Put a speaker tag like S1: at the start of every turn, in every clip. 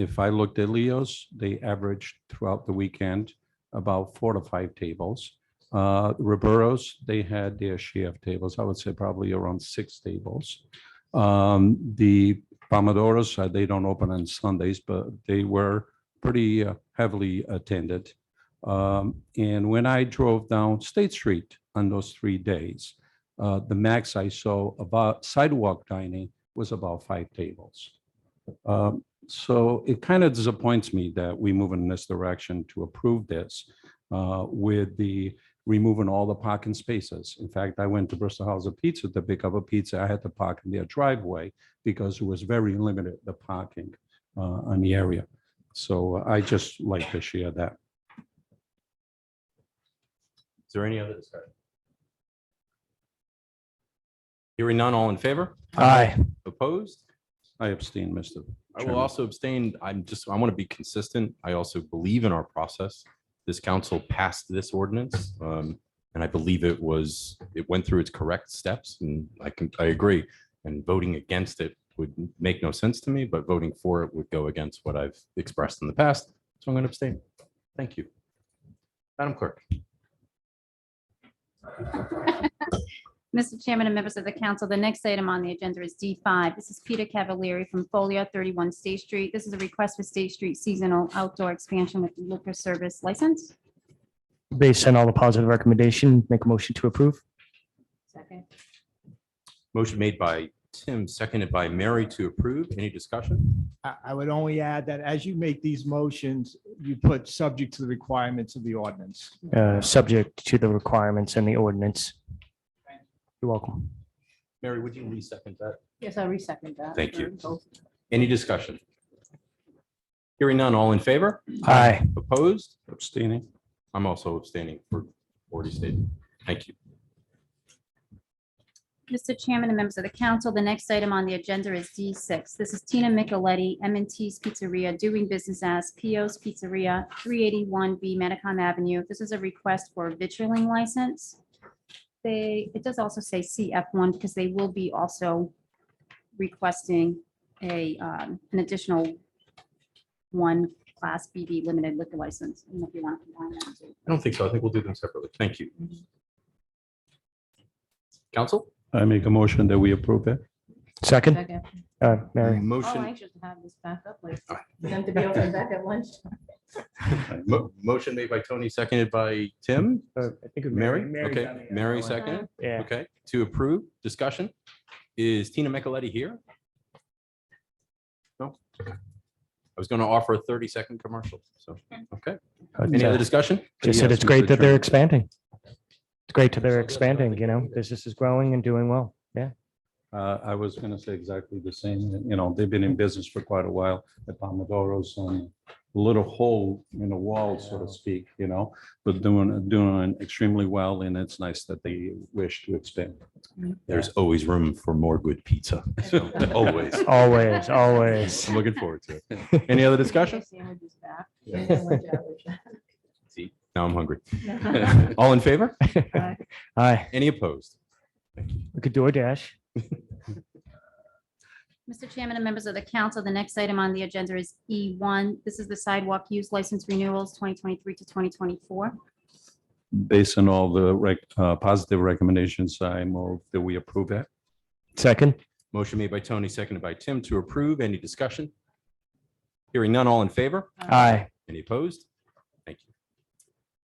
S1: if I looked at Leo's, they averaged throughout the weekend about four to five tables. Uh, Roberto's, they had their share of tables. I would say probably around six tables. Um, the Pomodoros, uh, they don't open on Sundays, but they were pretty uh, heavily attended. Um, and when I drove down State Street on those three days, uh, the max I saw about sidewalk dining was about five tables. Um, so it kind of disappoints me that we move in this direction to approve this uh, with the removing all the parking spaces. In fact, I went to Bristol House of Pizza to pick up a pizza. I had to park in their driveway because it was very limited, the parking uh, on the area. So I just like to share that.
S2: Is there any other discussion? Hearing none, all in favor?
S3: Aye.
S2: Opposed?
S1: I abstain, Mr.
S2: I will
S1: Chairman.
S2: also abstain. I'm just, I want to be consistent. I also believe in our process. This council passed this ordinance. um, And I believe it was, it went through its correct steps and I can, I agree. And voting against it would make no sense to me, but voting for it would go against what I've expressed in the past. So I'm going to abstain. Thank you. Madam Clerk.
S4: Mr. Chairman and members of the council, the next item on the agenda is D5. This is Peter Cavalieri from Folio 31 State Street. This is a request for State Street seasonal outdoor expansion with liquor service license.
S3: Based on all the positive recommendation, make a motion to approve.
S4: Second.
S2: Motion made by Tim, seconded by Mary to approve. Any discussion?
S5: I, I would only add that as you make these motions, you put subject to the requirements of the ordinance.
S3: Uh, subject to the requirements and the ordinance. You're welcome.
S2: Mary, would you re-second that?
S6: Yes, I resecond that.
S2: Thank you. Any discussion? Hearing none, all in favor?
S3: Aye.
S2: Opposed?
S1: Abstaining.
S2: I'm also abstaining for already stated. Thank you.
S4: Mr. Chairman and members of the council, the next item on the agenda is D6. This is Tina Micheletti, m and ts Pizzeria, doing business as Pio's Pizzeria, 381B Medicom Avenue. This is a request for a vitrilling license. They, it does also say CF1 because they will be also requesting a, um, an additional one Class BB limited liquor license. I don't know if you want to combine that too.
S2: I don't think so. I think we'll do them separately. Thank you. Council?
S1: I make a motion that we approve it.
S3: Second,
S6: Second.
S3: uh, Mary.
S6: Oh,
S2: Motion,
S6: I should have this back up like, for them to be open back at lunch.
S2: mo- motion made by Tony, seconded by Tim.
S3: Uh, I think it was
S2: Mary? Okay, Mary seconded.
S3: Yeah.
S2: Okay, to approve, discussion. Is Tina Micheletti here? No? I was going to offer a 30-second commercial, so, okay. Any other discussion?
S3: Just uh, said
S2: Yes,
S3: it's great
S2: Mr.
S3: that
S2: Chairman.
S3: they're expanding. It's great that they're expanding, you know, business is growing and doing well. Yeah.
S1: Uh, I was going to say exactly the same, you know, they've been in business for quite a while, the Pomodoro's on a little hole in the wall, so to speak, you know, but doing, doing extremely well, and it's nice that they wish to expand.
S2: There's always room for more good pizza. So always.
S3: Always, always.
S2: I'm looking forward to it. Any other discussion?
S6: Sandwiches back.
S2: Yeah.
S6: And lunch hours.
S2: See, now I'm hungry.
S6: Yeah.
S2: All in favor?
S6: Aye.
S3: Aye.
S2: Any opposed?
S3: We could do a dash.
S4: Mr. Chairman and members of the council, the next item on the agenda is E1. This is the sidewalk use license renewals 2023 to 2024.
S1: Based on all the rec, uh, positive recommendations, I move that we approve it.
S3: Second,
S2: Motion made by Tony, seconded by Tim to approve. Any discussion? Hearing none, all in favor?
S3: aye.
S2: Any opposed? Thank you.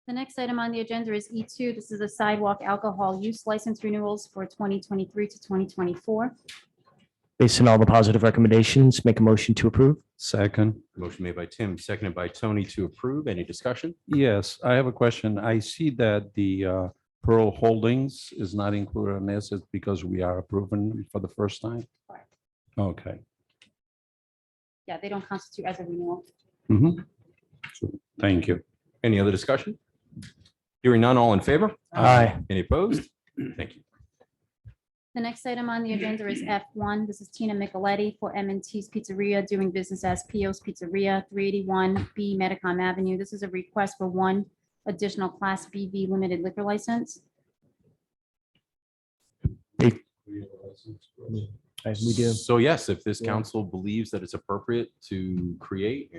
S4: The next item on the agenda is E2. This is the sidewalk alcohol use license renewals for 2023 to 2024.
S3: Based on all the positive recommendations, make a motion to approve.
S1: Second,
S2: Motion made by Tim, seconded by Tony to approve. Any discussion?
S1: yes, I have a question. I see that the uh, Pearl Holdings is not included in this, it's because we are approving for the first time?
S4: Correct.
S1: Okay,
S4: Yeah, they don't constitute as a renewal.
S1: thank you.
S2: Any other discussion? Hearing none, all in favor?
S3: Aye.
S2: Any opposed? Thank you.
S4: The next item on the agenda is F1. This is Tina Micheletti for m and ts Pizzeria, doing business as Pio's Pizzeria, 381B Medicom Avenue. This is a request for one additional Class BV limited liquor license.
S3: I- We do.
S2: So yes, if this
S3: Yeah.
S2: council believes that it's appropriate to create